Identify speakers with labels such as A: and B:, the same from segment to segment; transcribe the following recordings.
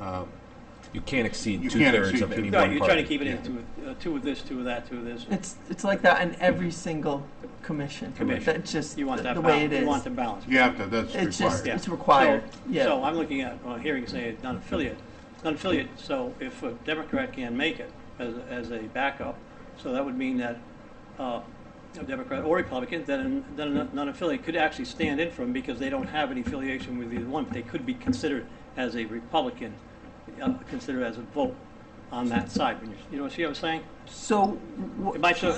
A: Uh,
B: um, you can't exceed
A: You can't
B: two-thirds
A: exceed
B: of any
A: two-
C: No,
B: one
C: you're trying to
B: party.
C: keep it in
A: yeah.
C: two, uh, two of this, two of that, two of this.
D: It's, it's like that in every single commission.
C: Commission.
D: That's just
C: You want
D: the
C: that
D: the way
C: balance,
D: it
C: you want
D: is.
C: the balance.
A: You have to, that's
D: It's just,
A: required.
C: Yeah.
D: it's required,
C: So- So
D: yeah.
C: I'm looking at, uh, hearing say non-affiliate, non-affiliate, so if a Democrat can make it as, as a backup, so that would mean that uh, a Democrat or Republican, then, then a non-affiliate could actually stand in for them because they don't have any affiliation with either one, but they could be considered as a Republican, uh, considered as a vote on that side. When you're- You know, see what I'm saying?
D: So, wh-
C: It might show,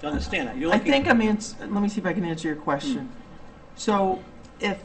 C: to understand that, you're
D: I
C: looking.
D: think I'm ans- let me see if I can answer your question.
C: Hmm.
D: So if,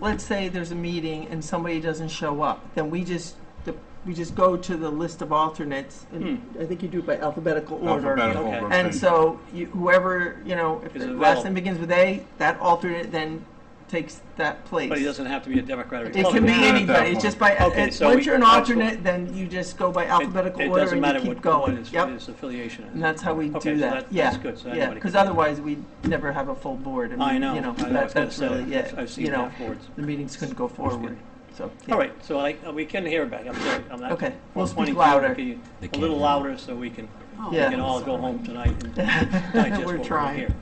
D: let's say there's a meeting and somebody doesn't show up, then we just, the- we just go to the list of alternates. and
C: Hmm.
D: I think you do it by alphabetical order.
A: Alphabetical
C: Okay.
A: rotation.
D: And so you- whoever, you know, if
C: Is
D: the
C: available.
D: last name begins with A, that alternate then takes that place.
C: But he doesn't have to be a Democrat or
D: It can
C: Republican.
D: be
A: Not at that
D: anybody,
A: point.
D: it's just by,
C: Oh, Okay,
D: it-
C: so
D: once
C: we-
D: you're an
C: that's what-
D: alternate, then you just go by
C: It-
D: alphabetical
C: It
D: order
C: doesn't
D: and
C: matter
D: you
C: what,
D: keep
C: what
D: going.
C: his,
D: Yep,
C: his affiliation is.
D: and that's how we
C: Okay,
D: do
C: so
D: that,
C: that-
D: yeah,
C: that's good, so
D: yeah,
C: anybody can do
D: because
C: that.
D: otherwise we'd never have a full board. mean,
C: I know,
D: you
C: I know, I was
D: that-
C: gonna
D: That's really,
C: say,
D: yeah,
C: that. I've
D: you
C: seen
D: know,
C: that boards.
D: the meetings couldn't go forward, so. yeah.
C: All right, so I, we can hear back, I'm sorry, I'm not.
D: Okay, we'll speak
C: 122,
D: louder.
C: can you-
B: They
C: A
B: can't
C: little
B: hear.
C: louder so we can, we
D: Yeah.
C: can all go home tonight and digest what
D: We're
C: we're
D: trying.
C: here.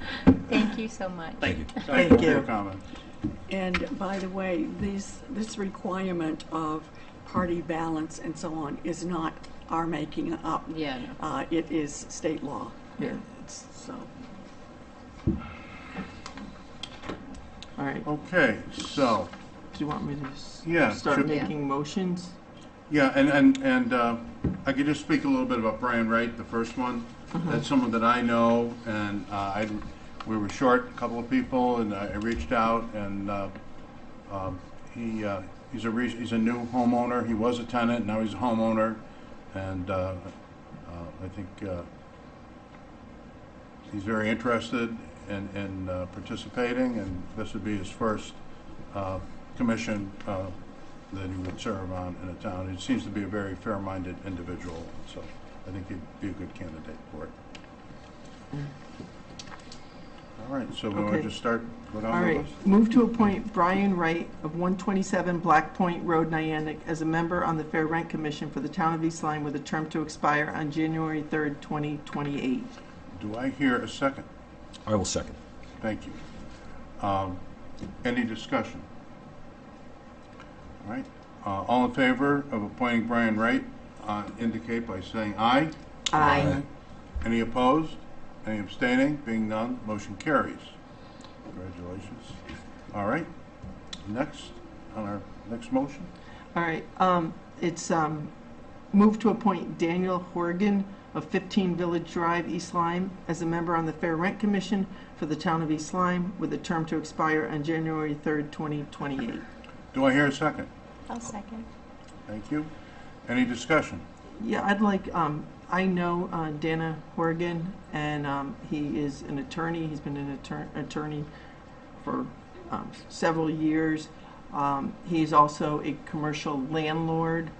E: Thank you so much.
C: Thank you. Sorry.
D: Thank
A: Your
D: you.
A: comment.
F: And by the way, these, this requirement of party balance and so on is not our making up.
E: Yeah, no.
F: Uh, it is state law,
D: Yeah, it's,
F: so.
D: all right, do
A: Okay, so,
D: you want me to s-
A: Yeah,
D: start
A: should-
D: making motions?
A: yeah, and, and, and uh, I could just speak a little bit about Brian Wright, the first one.
D: Mm-hmm.
A: That's someone that I know, and uh, I, we were short a couple of people, and I I reached out, and uh, um, he, uh, he's a, re- he's a new homeowner. He was a tenant, now he's a homeowner, and uh, uh, I think uh, he's very interested in, in uh, participating, and this would be his first uh, commission uh, that he would serve on in a town. He seems to be a very fair-minded individual, so I think he'd be a good candidate for it. All right, so we want
D: Okay.
A: to just start, go
D: All
A: down the
D: right,
A: list?
D: move to appoint Brian Wright of 127 Black Point Road, Niantic, as a member on the Fair Rent Commission for the Town of East Lyme with a term to expire on January 3rd, 2028.
A: Do I hear a second?
B: I will second.
A: Thank you. Um, Any discussion? All right, uh, all in favor of appointing Brian Wright, uh, indicate by saying aye.
D: Aye.
A: Any opposed? Any abstaining? Being none, motion carries. Congratulations. All right, next, on our next motion?
D: All right, um, it's, um, move to appoint Daniel Horgan of 15 Village Drive, East Lyme, as a member on the Fair Rent Commission for the Town of East Lyme with a term to expire on January 3rd, 2028.
A: Do I hear a second?
E: I'll second.
A: Thank you. Any discussion?
D: Yeah, I'd like, um, I know, uh, Dana Horgan, and, um, he is an attorney, he's been an attor- attorney for, um, several years. Um, he's also a commercial landlord,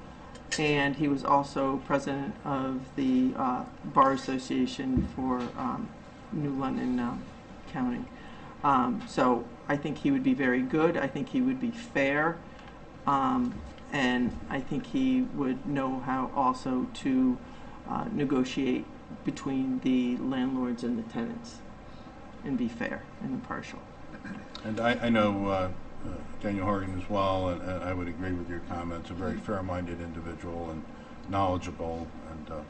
D: and he was also president of the, uh, Bar Association for, um, New London, um, County. Um, so I think he would be very good, I think he would be fair, um, and I think he would know how also to uh, negotiate between the landlords and the tenants and be fair and impartial.
A: And I, I know uh, uh, Daniel Horgan as well, and and I would agree with your comments, a very fair-minded individual and knowledgeable, and uh,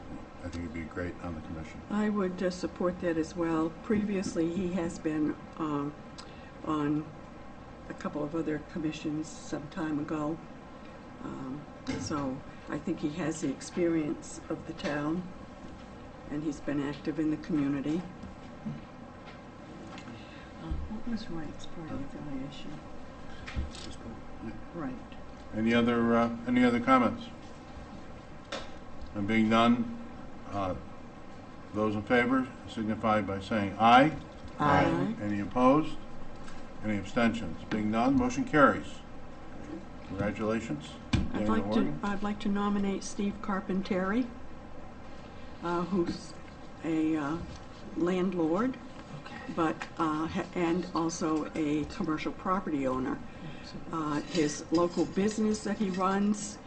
A: I think he'd be great on the commission.
F: I would uh, support that as well. Previously, he has been um, on a couple of other commissions some time ago. Um, So I think he has the experience of the town, and he's been active in the community. Uh, What was Wright's party affiliation? Right.
A: Any other, uh, any other comments? And being none, uh, those in favor signify by saying aye.
D: Aye.
A: Any opposed? Any abstentions? Being none, motion carries. Congratulations.
F: I'd
A: Daniel
F: like to,
A: Horgan.
F: I'd like to nominate Steve Carpenteri, uh, who's a uh, landlord, but, uh, ha- and also a commercial property owner. Uh, His local business that he runs